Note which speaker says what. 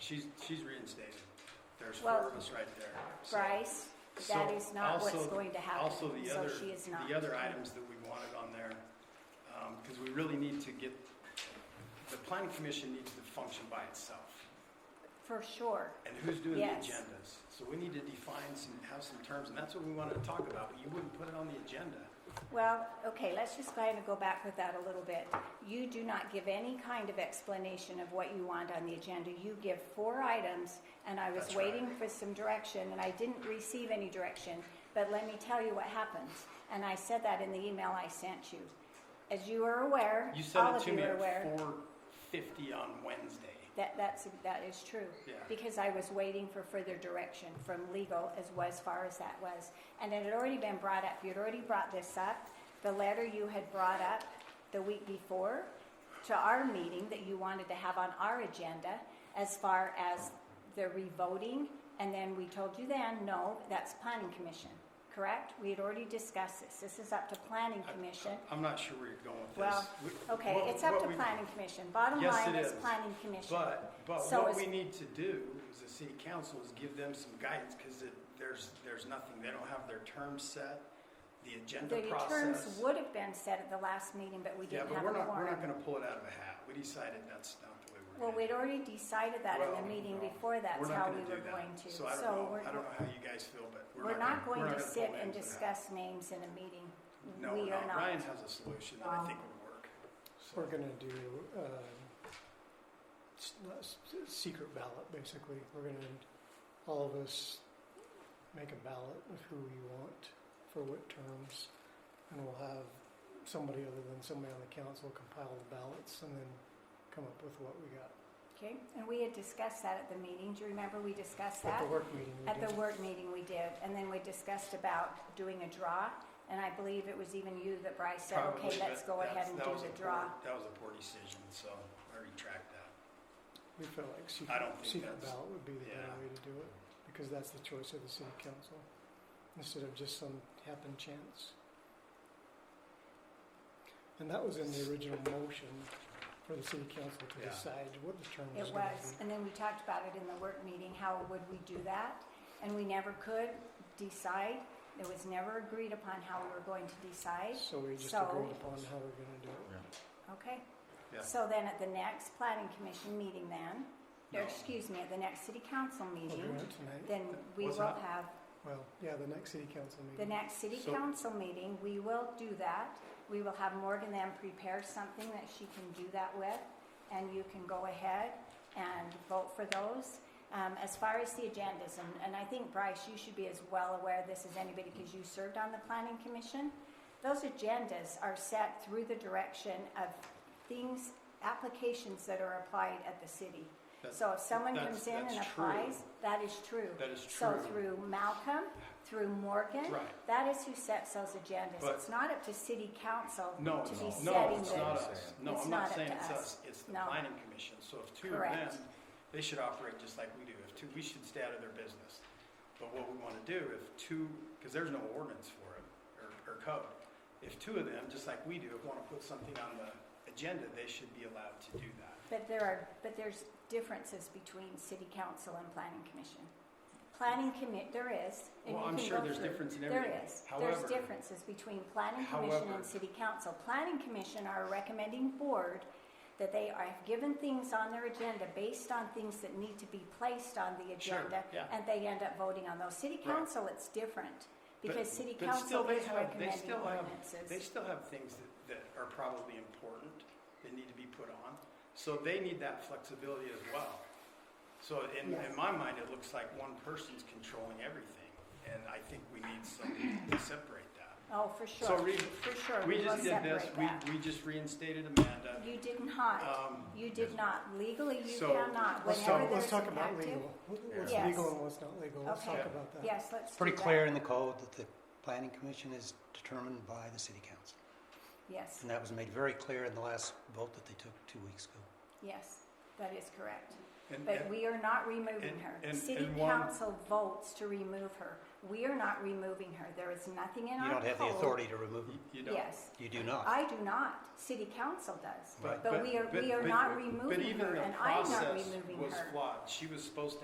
Speaker 1: she's, she's reinstated. There's four
Speaker 2: Well,
Speaker 1: of us right there. So-
Speaker 2: Bryce,
Speaker 1: so
Speaker 2: that is not what's
Speaker 1: also-
Speaker 2: going to happen,
Speaker 1: Also, the
Speaker 2: so
Speaker 1: other,
Speaker 2: she is not.
Speaker 1: the other items that we wanted on there, because we really need to get, the planning commission needs to function by itself.
Speaker 2: For sure,
Speaker 1: And who's doing the
Speaker 2: Yes.
Speaker 1: agendas? So we need to define some, have some terms, and that's what we wanted to talk about, but you wouldn't put it on the agenda.
Speaker 2: well, okay, let's just kind of go back with that a little bit. You do not give any kind of explanation of what you want on the agenda, you give four items, and I was
Speaker 1: That's right.
Speaker 2: waiting for some direction, and I didn't receive any direction, but let me tell you what happens, and I said that in the email I sent you. As you are aware,
Speaker 1: You sent
Speaker 2: all
Speaker 1: it
Speaker 2: of
Speaker 1: to
Speaker 2: you
Speaker 1: me
Speaker 2: are aware.
Speaker 1: at four fifty on Wednesday.
Speaker 2: That, that's, that is true.
Speaker 1: Yeah.
Speaker 2: Because I was waiting for further direction from legal as, well, as far as that was. And it had already been brought up, you'd already brought this up, the letter you had brought up the week before to our meeting that you wanted to have on our agenda as far as the revoting, and then we told you then, no, that's planning commission, correct? We had already discussed this, this is up to planning commission.
Speaker 1: I'm not sure where you're going with
Speaker 2: Well,
Speaker 1: this. We-
Speaker 2: okay,
Speaker 1: what-
Speaker 2: it's up
Speaker 1: what
Speaker 2: to
Speaker 1: we-
Speaker 2: planning commission, bottom
Speaker 1: Yes,
Speaker 2: line
Speaker 1: it
Speaker 2: is
Speaker 1: is.
Speaker 2: planning commission.
Speaker 1: But, but
Speaker 2: So
Speaker 1: what
Speaker 2: is-
Speaker 1: we need to do as a city council is give them some guidance, because there's, there's nothing, they don't have their terms set, the agenda
Speaker 2: The terms
Speaker 1: process.
Speaker 2: would have been set at the last meeting, but we
Speaker 1: Yeah,
Speaker 2: didn't
Speaker 1: but
Speaker 2: have a
Speaker 1: we're not, we're not
Speaker 2: quorum.
Speaker 1: gonna pull it out of a hat, we decided that's not the way we're
Speaker 2: Well,
Speaker 1: gonna do it.
Speaker 2: we'd already decided that in
Speaker 1: Well,
Speaker 2: the meeting
Speaker 1: no,
Speaker 2: before, that's
Speaker 1: We're not
Speaker 2: how
Speaker 1: gonna
Speaker 2: we were
Speaker 1: do that.
Speaker 2: going to.
Speaker 1: So I don't
Speaker 2: So
Speaker 1: know,
Speaker 2: we're,
Speaker 1: I don't know how you guys feel, but we're
Speaker 2: we're not going
Speaker 1: we're
Speaker 2: to
Speaker 1: gonna
Speaker 2: sit
Speaker 1: pull names
Speaker 2: and
Speaker 1: out of a hat.
Speaker 2: discuss names in a meeting.
Speaker 1: No,
Speaker 2: We
Speaker 1: no,
Speaker 2: are
Speaker 1: Ryan
Speaker 2: not.
Speaker 1: has a solution that I
Speaker 2: Um,
Speaker 1: think would work. So-
Speaker 3: We're gonna do, um, s- not s- secret ballot, basically. We're gonna, all of us make a ballot of who we want for what terms. And we'll have somebody other than somebody on the council compile the ballots and then come up with what we got.
Speaker 2: Okay, and we had discussed that at the meeting. Do you remember we discussed that?
Speaker 3: At the work meeting we
Speaker 2: At
Speaker 3: did.
Speaker 2: the work meeting we did, and then we discussed about doing a draw. And I believe it was even you that Bryce said,
Speaker 1: Probably,
Speaker 2: okay, let's
Speaker 1: but
Speaker 2: go
Speaker 1: that's-
Speaker 2: ahead and
Speaker 1: that
Speaker 2: do
Speaker 1: was a
Speaker 2: the
Speaker 1: poor-
Speaker 2: draw.
Speaker 1: That was a poor decision, so I retract that.
Speaker 3: We felt like
Speaker 1: I don't
Speaker 3: secret,
Speaker 1: think
Speaker 3: secret
Speaker 1: that's-
Speaker 3: ballot would be the better
Speaker 1: yeah.
Speaker 3: way to do it, because that's the choice of the city council, instead of just some happen chance. And that was in the original motion for the city council to
Speaker 1: Yeah.
Speaker 3: decide what the term was
Speaker 2: It
Speaker 3: gonna
Speaker 2: was,
Speaker 3: be.
Speaker 2: and then we talked about it in the work meeting, how would we do that? And we never could decide, it was never agreed upon how we were going to decide,
Speaker 3: So we just
Speaker 2: So-
Speaker 3: agreed upon how we're gonna do it.
Speaker 2: okay?
Speaker 1: Yeah.
Speaker 2: So then at the next planning commission meeting then, or
Speaker 1: No.
Speaker 2: excuse me, at the next city council
Speaker 3: We'll
Speaker 2: meeting,
Speaker 3: do it tonight,
Speaker 2: then we will
Speaker 1: What's that?
Speaker 2: have,
Speaker 3: well, yeah, the next city council
Speaker 2: the
Speaker 3: meeting.
Speaker 2: next city
Speaker 1: So-
Speaker 2: council meeting, we will do that. We will have Morgan then prepare something that she can do that with, and you can go ahead and vote for those. Um, as far as the agendas, and, and I think Bryce, you should be as well aware of this as anybody because you served on the planning commission. Those agendas are set through the direction of things, applications that are applied at the city.
Speaker 1: That-
Speaker 2: So if someone
Speaker 1: that's-
Speaker 2: comes in and
Speaker 1: that's true.
Speaker 2: applies, that is true.
Speaker 1: That is
Speaker 2: So
Speaker 1: true.
Speaker 2: through Malcolm, through Morgan,
Speaker 1: Right.
Speaker 2: that is who sets those agendas.
Speaker 1: But-
Speaker 2: It's not up to city council to
Speaker 1: No,
Speaker 2: be
Speaker 1: it's-
Speaker 2: setting
Speaker 1: no, it's not
Speaker 2: the.
Speaker 1: us. No,
Speaker 2: It's
Speaker 1: I'm
Speaker 2: not
Speaker 1: not
Speaker 2: up
Speaker 1: saying
Speaker 2: to
Speaker 1: it's
Speaker 2: us.
Speaker 1: us, it's the
Speaker 2: No.
Speaker 1: planning commission. So if two are
Speaker 2: Correct.
Speaker 1: them, they should operate just like we do. If two, we should stay out of their business. But what we want to do, if two, because there's no ordinance for it or, or code. If two of them, just like we do, want to put something on the agenda, they should be allowed to do that.
Speaker 2: But there are, but there's differences between city council and planning commission. Planning commit, there is. and
Speaker 1: Well,
Speaker 2: you
Speaker 1: I'm
Speaker 2: can
Speaker 1: sure
Speaker 2: go
Speaker 1: there's
Speaker 2: through.
Speaker 1: difference in
Speaker 2: There
Speaker 1: everything.
Speaker 2: is. There's
Speaker 1: However-
Speaker 2: differences between planning commission
Speaker 1: However-
Speaker 2: and city council. Planning commission are a recommending board that they are have given things on their agenda based on things that need to be placed on the
Speaker 1: Sure,
Speaker 2: agenda.
Speaker 1: yeah.
Speaker 2: And they end up voting on those. City
Speaker 1: Right.
Speaker 2: council, it's different.
Speaker 1: But-
Speaker 2: Because city
Speaker 1: but still
Speaker 2: council
Speaker 1: they
Speaker 2: is
Speaker 1: have- they
Speaker 2: recommending
Speaker 1: still have- They
Speaker 2: ordinances.
Speaker 1: still have things that, that are probably important that need to be put on. So they need that flexibility as well. So in, in my mind, it looks like one person's controlling everything. And I think we need something to separate that.
Speaker 2: Oh, for
Speaker 1: So
Speaker 2: sure,
Speaker 1: we,
Speaker 2: for sure.
Speaker 1: we
Speaker 2: will
Speaker 1: just did this,
Speaker 2: separate that.
Speaker 1: we, we just reinstated Amanda.
Speaker 2: You did not.
Speaker 1: Um,
Speaker 2: You did not. Legally, you
Speaker 1: So-
Speaker 2: cannot.
Speaker 3: Let's
Speaker 2: Whenever
Speaker 3: talk,
Speaker 2: there's
Speaker 3: let's talk
Speaker 2: an
Speaker 3: about
Speaker 2: active-
Speaker 3: legal, What- what's
Speaker 2: Yes.
Speaker 3: legal and what's not legal, let's talk
Speaker 2: Okay.
Speaker 3: about that.
Speaker 2: Yes, let's do
Speaker 4: Pretty
Speaker 2: that.
Speaker 4: clear in the code that the planning commission is determined by the city council.
Speaker 2: Yes,
Speaker 4: And that was made very clear in the last vote that they took two weeks ago.
Speaker 2: yes, that is correct.
Speaker 1: And-
Speaker 2: But
Speaker 1: and-
Speaker 2: we are not removing
Speaker 1: and-
Speaker 2: her.
Speaker 1: and-
Speaker 2: City
Speaker 1: and one-
Speaker 2: council votes to remove her. We are not removing her. There is nothing in
Speaker 4: You
Speaker 2: our
Speaker 4: don't
Speaker 2: code.
Speaker 4: have the authority to remove
Speaker 1: You-
Speaker 4: them.
Speaker 1: You don't.
Speaker 2: Yes.
Speaker 4: You do not.
Speaker 2: I do not. City council does.
Speaker 4: Right.
Speaker 2: But we are, we
Speaker 1: but-
Speaker 2: are
Speaker 1: but-
Speaker 2: not
Speaker 1: But
Speaker 2: removing
Speaker 1: even
Speaker 2: her,
Speaker 1: the
Speaker 2: and I'm not
Speaker 1: process
Speaker 2: removing
Speaker 1: was
Speaker 2: her.
Speaker 1: flawed. She was supposed to